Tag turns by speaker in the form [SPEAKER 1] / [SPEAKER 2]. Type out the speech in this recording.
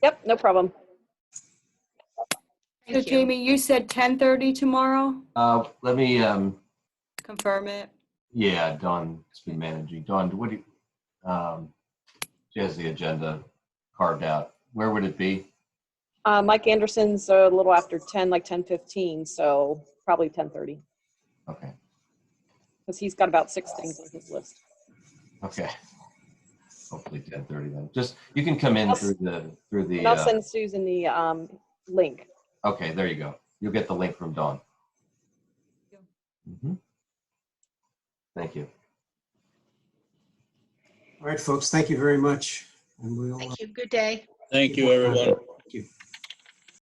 [SPEAKER 1] Yep, no problem.
[SPEAKER 2] So
[SPEAKER 3] Thank you.
[SPEAKER 2] Jamie, you said 10:30 tomorrow?
[SPEAKER 4] Uh, let me, um,
[SPEAKER 2] Confirm it.
[SPEAKER 4] yeah, Dawn has been managing. Dawn, what do you, um, she has the agenda carved out. Where would it be?
[SPEAKER 1] Uh, Mike Anderson's a little after 10, like 10:15, so probably 10:30,
[SPEAKER 4] Okay,
[SPEAKER 1] because he's got about six things on his list.
[SPEAKER 4] okay. Hopefully ten thirty then. Just, you can come in
[SPEAKER 1] I'll-
[SPEAKER 4] through the, through the,
[SPEAKER 1] And I'll
[SPEAKER 4] uh,
[SPEAKER 1] send Susan the um, link.
[SPEAKER 4] okay, there you go. You'll get the link from Dawn. Mhm. Thank you.
[SPEAKER 5] All right, folks, thank you very much. And we'll, uh,
[SPEAKER 3] Thank you. Good day.
[SPEAKER 6] Thank you, everyone.
[SPEAKER 5] thank you.